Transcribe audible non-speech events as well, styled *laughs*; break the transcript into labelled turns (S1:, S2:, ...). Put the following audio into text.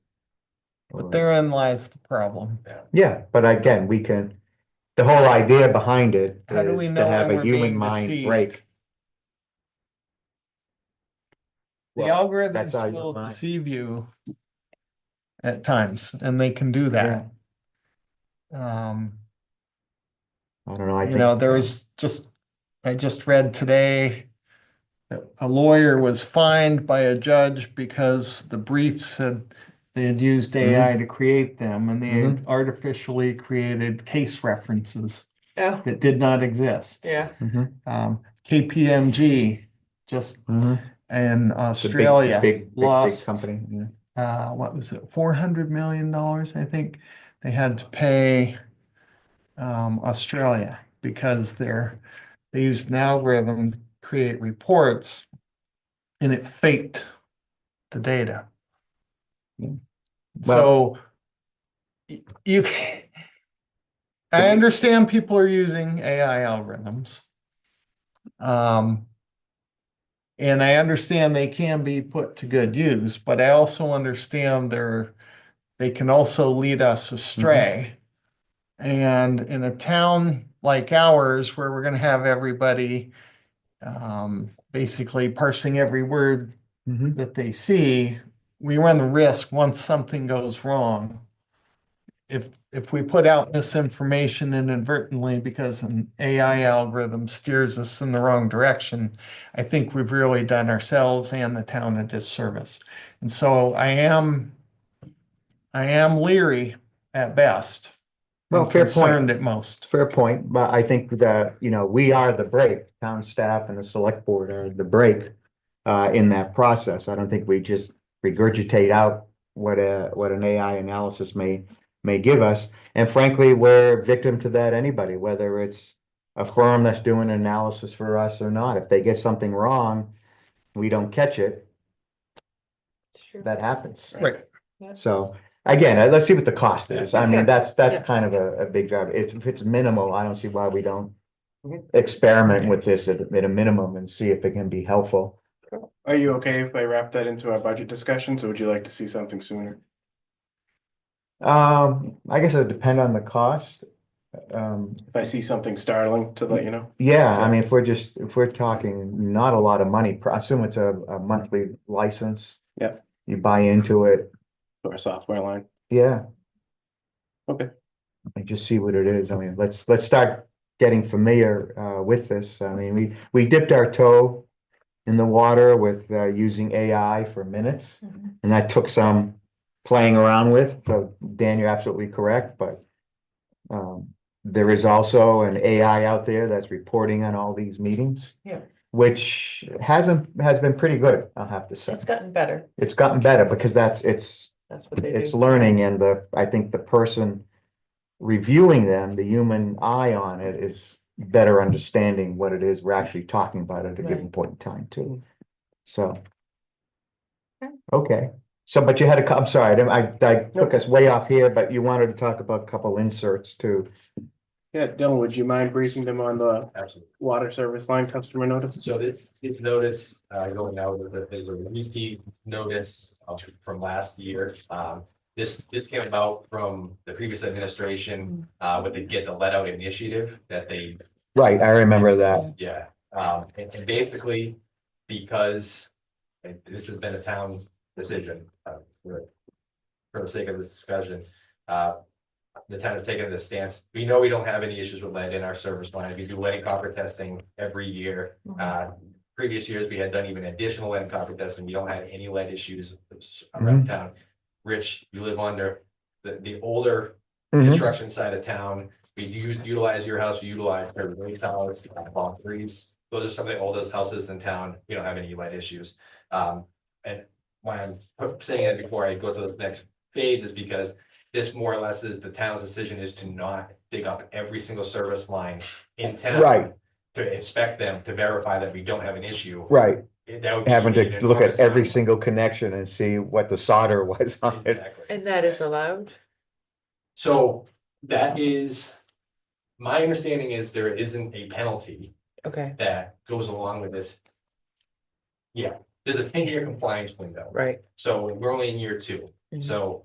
S1: But therein lies the problem.
S2: Yeah, but again, we can, the whole idea behind it
S1: How do we
S2: is
S1: know
S2: to
S1: when
S2: have a
S1: we're
S2: human
S1: being
S2: mind
S1: deceived?
S2: break.
S1: The
S2: Well,
S1: algorithms
S2: that's how you
S1: will
S2: find-
S1: deceive you at times, and they can do that. Um,
S2: I don't know, I
S1: you
S2: think.
S1: know, there was just, I just read today that a lawyer was fined by a judge because the briefs said they had used
S2: Mhm.
S1: AI to create them, and they had
S2: Mhm.
S1: artificially created case references
S3: Oh,
S1: that did not exist.
S3: yeah.
S2: Mhm,
S1: Um, KPMG just in
S2: mhm. It's a big-
S1: Australia
S2: Big, big, big
S1: lost
S2: company, yeah.
S1: uh, what was it, four hundred million dollars, I think, they had to pay um, Australia because they're, they used an algorithm to create reports and it faked the data.
S2: Yeah.
S1: So y- you, *laughs* ca- I understand people are using AI algorithms. Um, and I understand they can be put to good use, but I also understand they're, they can also lead us astray. And in a town like ours, where we're gonna have everybody um, basically parsing every word
S2: Mhm.
S1: that they see, we run the risk, once something goes wrong, if, if we put out misinformation inadvertently because an AI algorithm steers us in the wrong direction, I think we've really done ourselves and the town a disservice. And so I am, I am leery at best. and
S2: Well, fair point.
S1: Concerned at most.
S2: Fair point, but I think that, you know, we are the break, town staff and the select board are the break. Uh, in that process, I don't think we just regurgitate out what a, what an AI analysis may, may give us. And frankly, we're victim to that anybody, whether it's a firm that's doing an analysis for us or not. If they get something wrong, we don't catch it,
S3: Sure.
S2: that happens.
S1: Right.
S2: So again, uh, let's see what the cost is. I mean, that's,
S3: Yeah.
S2: that's kind of a, a big job. If, if it's minimal, I don't see why we don't experiment with this at, at a minimum and see if it can be helpful.
S4: Are you okay if I wrap that into our budget discussions, or would you like to see something sooner?
S2: Um, I guess it would depend on the cost. Um,
S4: If I see something startling to let you know?
S2: yeah, I
S4: Sure.
S2: mean, if we're just, if we're talking not a lot of money, I assume it's a, a monthly license.
S4: Yep.
S2: You buy into it,
S4: Or a software line?
S2: yeah.
S4: Okay.
S2: and just see what it is. I mean, let's, let's start getting familiar uh with this. I mean, we, we dipped our toe in the water with uh using AI for minutes,
S3: Mhm.
S2: and that took some playing around with. So Dan, you're absolutely correct, but um, there is also an AI out there that's reporting on all these meetings.
S3: Yeah.
S2: Which hasn't, has been pretty good, I'll have to say.
S3: It's gotten better.
S2: It's gotten better because that's, it's
S3: That's what they do.
S2: it's learning and the, I think the person reviewing them, the human eye on it is better understanding what it is we're actually talking about at a given
S3: Right. Mm-hmm.
S2: point in time too. So.
S3: Okay.
S2: Okay, so but you had a, cou- I'm sorry, I didn't- I, I took us way off here, but you wanted to talk about a couple inserts too.
S4: Yeah, Dylan, would you mind briefing them on the
S5: Absolutely.
S4: water service line customer notice?
S5: So this, this notice, uh, going out with the, is a Ruski notice uh, from last year. Um, this, this came about from the previous administration, uh, with the Get the Let Out initiative that they
S2: Right, I remember that.
S5: yeah, um, and and basically, because, and this has been a town decision, uh, for for the sake of this discussion, uh, the town has taken this stance, we know we don't have any issues with lead in our service line, we do lead and copper testing every year. Uh, previous years, we had done even additional lead and copper testing, we don't have any lead issues around town. Rich, you live under, the, the older
S2: Mm-hmm.
S5: construction side of town. We use, utilize your house, we utilize Fairwood Lake's house, uh, Long Threes. Those are some of the oldest houses in town. We don't have any lead issues. Um, and why I'm saying that before I go to the next phase is because this more or less is the town's decision is to not dig up every single service line in town.
S2: Right.
S5: To inspect them, to verify that we don't have an issue.
S2: Right,
S5: That would be
S2: having
S5: an
S2: to look at
S5: enormous
S2: every
S5: amount.
S2: single connection and see what the solder was on it.
S5: Exactly.
S3: And that is allowed?
S5: So that is, my understanding is there isn't a penalty
S3: Okay,
S5: that goes along with this. Yeah, there's a ten-year compliance window,
S3: right.
S5: so we're only in year two,
S3: Mhm.
S5: so